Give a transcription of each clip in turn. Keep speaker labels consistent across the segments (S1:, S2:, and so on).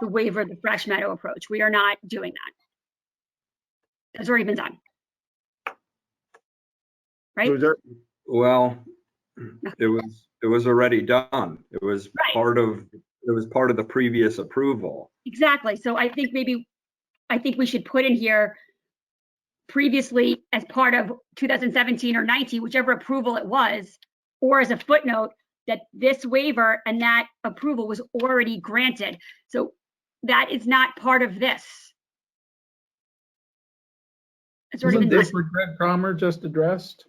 S1: the waiver, the fresh meadow approach. We are not doing that. That's already been done. Right?
S2: It was there-
S3: Well, it was, it was already done. It was
S1: Right.
S3: part of, it was part of the previous approval.
S1: Exactly. So I think maybe, I think we should put in here previously as part of 2017 or 19, whichever approval it was, or as a footnote, that this waiver and that approval was already granted. So that is not part of this. It's already
S4: Isn't
S1: been done.
S4: this what Greg Palmer just addressed?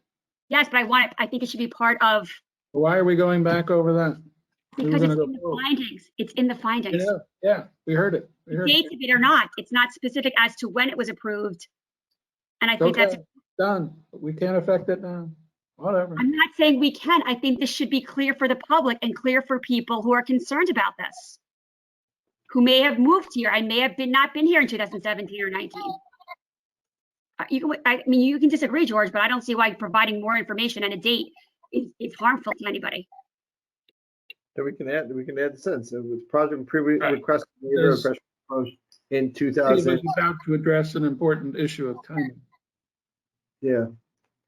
S1: Yes, but I want it, I think it should be part of,
S4: Why are we going back over that? We were
S1: because it's
S4: gonna go
S1: in the
S4: forward.
S1: findings. It's in the findings.
S4: Yeah, yeah, we heard it. We heard
S1: Dates
S4: it.
S1: of it or not, it's not specific as to when it was approved. And I think that's
S4: Okay, Done. We can't affect it now. Whatever.
S1: I'm not saying we can. I think this should be clear for the public and clear for people who are concerned about this. Who may have moved here. I may have been, not been here in 2017 or 19. Uh, You, can- I mean, you can disagree, George, but I don't see why providing more information and a date is, is harmful to anybody.
S2: Then we can add, we can add the sentence, uh, with project previous
S4: Right.
S2: request waiver of
S4: There's-
S2: fresh approach in two
S4: David
S2: thousand,
S4: is About to address an important issue of timing.
S2: yeah.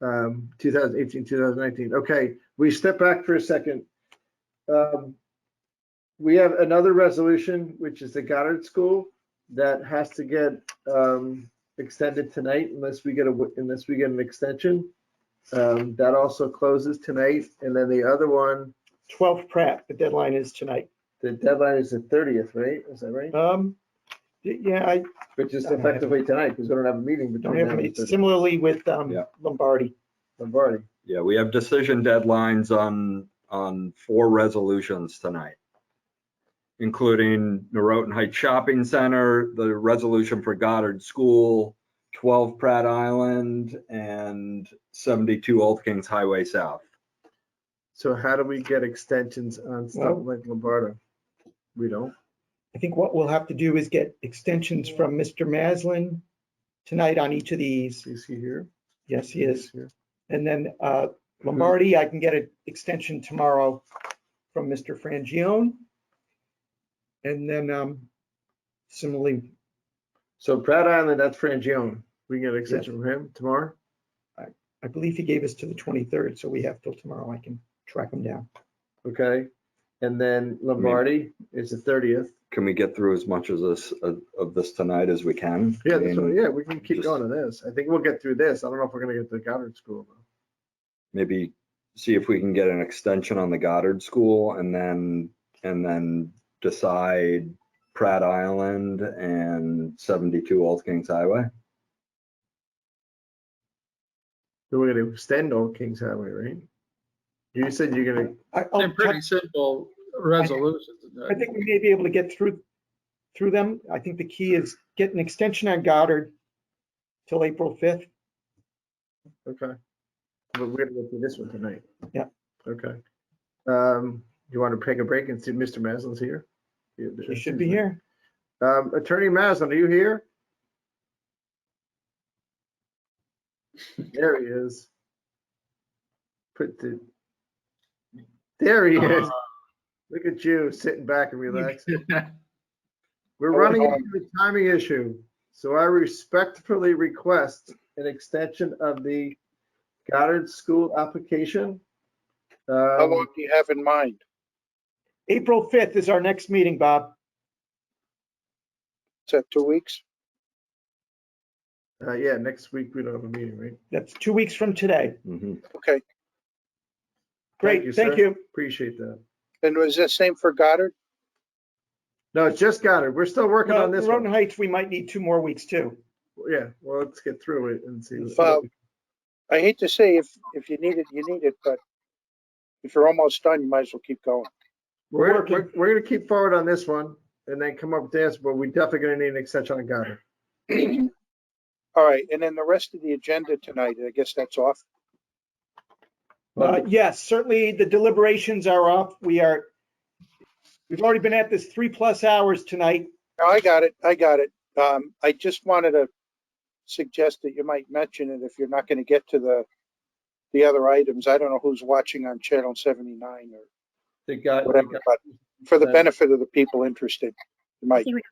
S2: Um, 2018, 2019. Okay, we step back for a second. Um, We have another resolution, which is the Goddard School, that has to get, um, extended tonight unless we get a, wi- unless we get an extension. Um, that also closes tonight. And then the other one,
S5: 12 Pratt, the deadline is tonight.
S2: the deadline is the thirtieth, right? Is that right?
S5: Um, y- yeah, I
S2: Which is effectively tonight, because we don't have a meeting
S5: don't
S2: between
S5: have
S2: now
S5: any,
S2: and
S5: similarly with um,
S3: Yeah.
S5: Lombardi.
S2: Lombardi.
S3: Yeah, we have decision deadlines on, on four resolutions tonight, including Norotan Heights Shopping Center, the resolution for Goddard School, 12 Pratt Island, and 72 Old Kings Highway South.
S2: So how do we get extensions on stuff
S5: Well-
S2: like Lombardo? We don't.
S5: I think what we'll have to do is get extensions from Mr. Maslin tonight on each of these.
S2: Is he here?
S5: Yes, he is.
S2: here.
S5: And then uh, Lombardi, I can get an extension tomorrow from Mr. Frangione. And then um, similarly,
S2: So Pratt Island, that's Frangione. We can get extension from him tomorrow?
S5: I believe he gave us to the 23rd, so we have till tomorrow. I can track him down.
S2: Okay. And then Lombardi is the thirtieth.
S3: Can we get through as much as this, of of this tonight as we can?
S2: Yeah,
S3: I
S2: that's
S3: mean,
S2: what- yeah, we can keep
S3: just-
S2: going to this. I think we'll get through this. I don't know if we're gonna get to the Goddard School. though.
S3: maybe see if we can get an extension on the Goddard School and then, and then decide Pratt Island and 72 Old Kings Highway.
S2: Then we're gonna extend Old Kings Highway, right? You said you're gonna,
S5: Oh, I- I'll
S4: They're
S5: check-
S4: pretty simple resolutions.
S5: I think we may be able to get through, through them. I think the key is get an extension on Goddard till April 5th.
S2: okay. But we're gonna get through this one tonight.
S5: Yeah.
S2: Okay. Um, you wanna take a break and see if Mr. Maslin's here?
S5: He should be here.
S2: Um, Attorney Maslin, are you here? There he is. Put the, there he is.
S5: Uh-huh.
S2: Look at you sitting back and relaxing. We're
S5: Oh,
S2: running
S5: no.
S2: into a timing issue, so I respectfully request an extension of the Goddard School application.
S6: How
S2: Um,
S6: long do you have in mind?
S5: April 5th is our next meeting, Bob.
S6: Is that two weeks?
S2: uh, yeah, next week we don't have a meeting, right?
S5: That's two weeks from today.
S3: Mhm.
S6: Okay.
S5: Great, thank
S2: sir.
S5: you.
S2: Appreciate that.
S6: And was that same for Goddard?
S2: No, it's just Goddard. We're still working
S5: Well,
S2: on this one.
S5: Roden Heights, we might need two more weeks too.
S2: Yeah, well, let's get through it and see. what-
S6: Well- I hate to say if, if you need it, you need it, but if you're almost done, you might as well keep going.
S2: We're, gonna-
S5: working.
S2: we're, we're gonna keep forward on this one and then come up with this, but we definitely gonna need an extension on Goddard.
S6: All right, and then the rest of the agenda tonight, I guess that's off.
S5: Uh,
S2: Well,
S5: Yes, certainly the deliberations are off. We are, we've already been at this three plus hours tonight.
S6: No, I got it, I got it. Um, I just wanted to suggest that you might mention it if you're not gonna get to the, the other items. I don't know who's watching on Channel seventy-nine or
S2: They got,
S6: whatever, but for the benefit of the people interested, you might.
S1: I think we